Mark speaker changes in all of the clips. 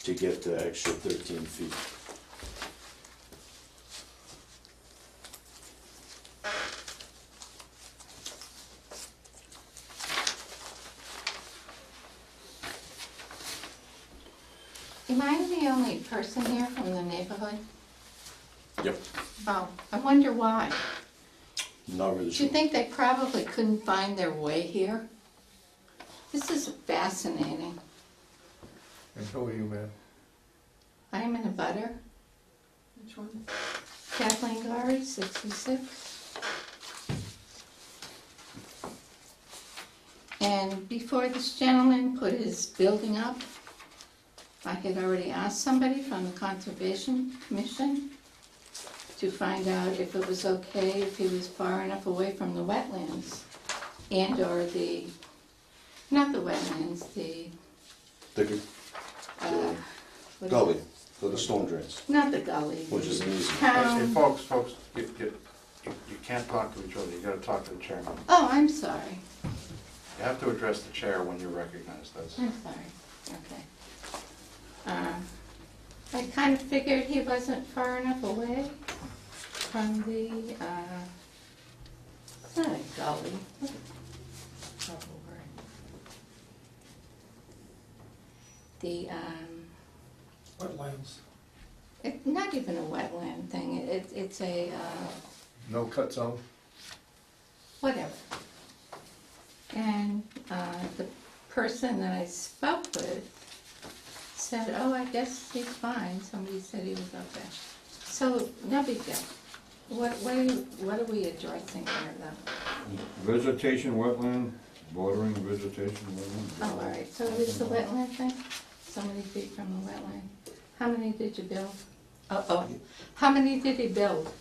Speaker 1: to get the extra thirteen feet.
Speaker 2: Am I the only person here from the neighborhood?
Speaker 1: Yep.
Speaker 2: Oh, I wonder why.
Speaker 1: Not really
Speaker 2: Do you
Speaker 1: sure.
Speaker 2: think they probably couldn't find their way here? This is fascinating.
Speaker 3: And who are you, ma'am?
Speaker 2: I'm in a butter.
Speaker 4: Which one?
Speaker 2: Kathleen Gary, 66. And before this gentleman put his building up, I had already asked somebody from the Conservation Commission to find out if it was okay if he was far enough away from the wetlands and/or the, not the wetlands, the,
Speaker 1: The
Speaker 2: uh, what-
Speaker 1: gully, or the storm drains,
Speaker 2: Not the gully.
Speaker 1: which is an easy.
Speaker 3: Hey, hey,
Speaker 2: Town,
Speaker 3: folks, folks, you, you, you you can't talk to each other, you gotta talk to the chairman.
Speaker 2: oh, I'm sorry.
Speaker 3: You have to address the chair when you're recognized, that's.
Speaker 2: I'm sorry, okay. Um, I kind of figured he wasn't far enough away from the, uh, oh, it's not a gully. What a horrible word. The, um,
Speaker 5: wetlands.
Speaker 2: it's not even a wetland thing, it, it's a, uh,
Speaker 3: No cut zone?
Speaker 2: whatever. And uh, the person that I spoke with said, oh, I guess he's fine, somebody said he was okay. So, no big deal. What, what are, you- what are we addressing here though?
Speaker 6: Vegetation wetland, bordering vegetation wetland.
Speaker 2: Oh, all right, so it is the wetland thing, so many feet from the wetland. How many did you build? Oh, oh, how many did he build?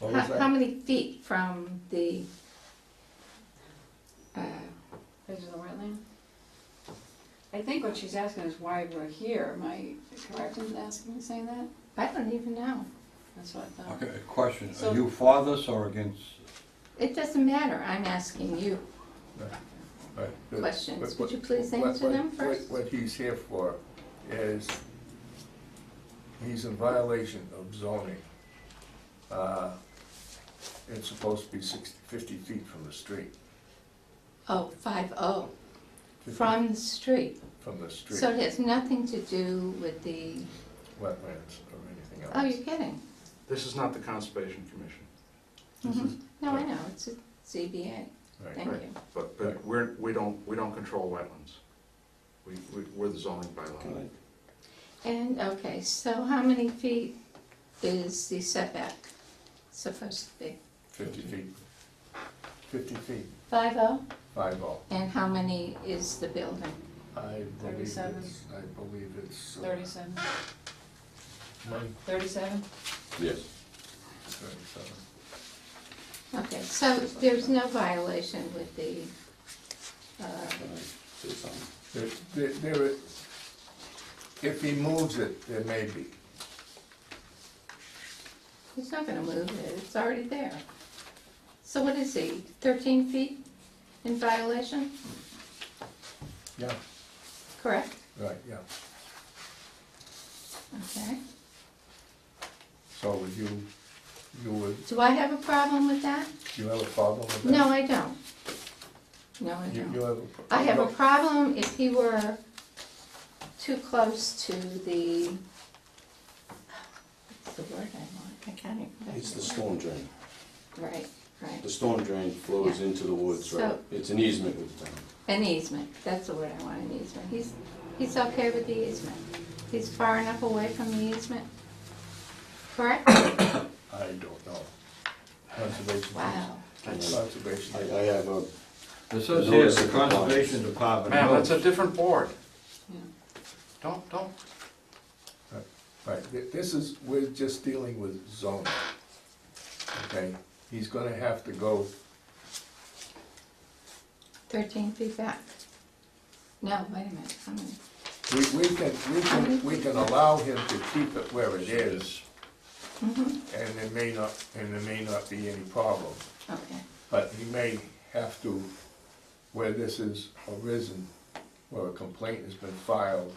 Speaker 3: What
Speaker 2: How,
Speaker 3: was that?
Speaker 2: how many feet from the, uh,
Speaker 4: Edge of the wetland? I think what she's asking is why we're here. Am I correct in asking, saying that?
Speaker 2: I don't even know.
Speaker 4: That's what I thought.
Speaker 6: Okay, question,
Speaker 4: So-
Speaker 6: are you for this or against?
Speaker 2: It doesn't matter, I'm asking you
Speaker 3: Right. The-
Speaker 2: questions,
Speaker 3: what-
Speaker 2: would you please
Speaker 3: what-
Speaker 2: answer
Speaker 3: what-
Speaker 2: them
Speaker 3: what-
Speaker 2: first?
Speaker 3: What he's here for is, he's in violation of zoning. Uh, It's supposed to be 60 50 feet from the street.
Speaker 2: Oh, five oh,
Speaker 3: 50
Speaker 2: from the street,
Speaker 3: From the street,
Speaker 2: so it has nothing to do with the,
Speaker 3: wetlands or anything else.
Speaker 2: oh, you're kidding?
Speaker 7: This is not the Conservation Commission,
Speaker 2: Mhm. No, I know, it's a ZBA,
Speaker 3: Right.
Speaker 2: mm-hmm. thank you.
Speaker 7: but, but we're, we don't, we don't control wetlands. We, we- we're the zoning bylaw.
Speaker 1: Good.
Speaker 2: And, okay, so how many feet is the setback supposed to be?
Speaker 3: 50 feet. 50 feet,
Speaker 2: Five oh,
Speaker 3: five all.
Speaker 2: and how many is the building?
Speaker 3: I believe
Speaker 4: 37.
Speaker 3: it's, I believe it's. uh,
Speaker 4: Thirty-seven.
Speaker 3: one,
Speaker 4: Thirty-seven?
Speaker 1: Yes.
Speaker 3: 37.
Speaker 2: Okay, so there's no violation with the, uh,
Speaker 1: It's on.
Speaker 3: There, there, there is- if he moves it, there may be.
Speaker 2: He's not gonna move it, it's already there. So what is he, thirteen feet in violation,
Speaker 3: Yeah.
Speaker 2: correct?
Speaker 3: Right, yeah.
Speaker 2: Okay.
Speaker 3: So would you, you would,
Speaker 2: Do I have a problem with that?
Speaker 3: you have a problem with that?
Speaker 2: No, I don't. No, I
Speaker 3: You, you
Speaker 2: don't.
Speaker 3: have a. pro-
Speaker 2: I have a
Speaker 3: no,
Speaker 2: problem if he were too close to the, what's the word I want, I can't even. remember
Speaker 1: It's the
Speaker 2: word.
Speaker 1: storm drain.
Speaker 2: Right, right.
Speaker 1: The storm drain flows
Speaker 2: Yeah.
Speaker 1: into the woods, right?
Speaker 2: So-
Speaker 1: It's an easement with the town.
Speaker 2: An easement, that's the word I want, an easement. He's, he's okay with the easement. He's far enough away from the easement, correct?
Speaker 3: I don't know. Conservation.
Speaker 2: Wow.
Speaker 3: Conservation.
Speaker 1: I, I have a,
Speaker 6: It says
Speaker 1: No,
Speaker 6: here,
Speaker 1: it's
Speaker 6: the
Speaker 1: a compliance.
Speaker 6: conservation department.
Speaker 7: Ma'am,
Speaker 6: notes.
Speaker 7: that's a different board.
Speaker 4: Yeah.
Speaker 7: Don't, don't,
Speaker 3: Right, thi- this is, we're just dealing with zoning. Okay, he's gonna have to go,
Speaker 2: Thirteen feet back. No, wait a minute, how many?
Speaker 3: we, we can, we
Speaker 2: Mm-hmm.
Speaker 3: can, we can allow him to keep it where it is.
Speaker 2: Mhm,
Speaker 3: And there may not, and there may not be any problem,
Speaker 2: Okay,
Speaker 3: but he may have to, where this has arisen, where a complaint has been filed,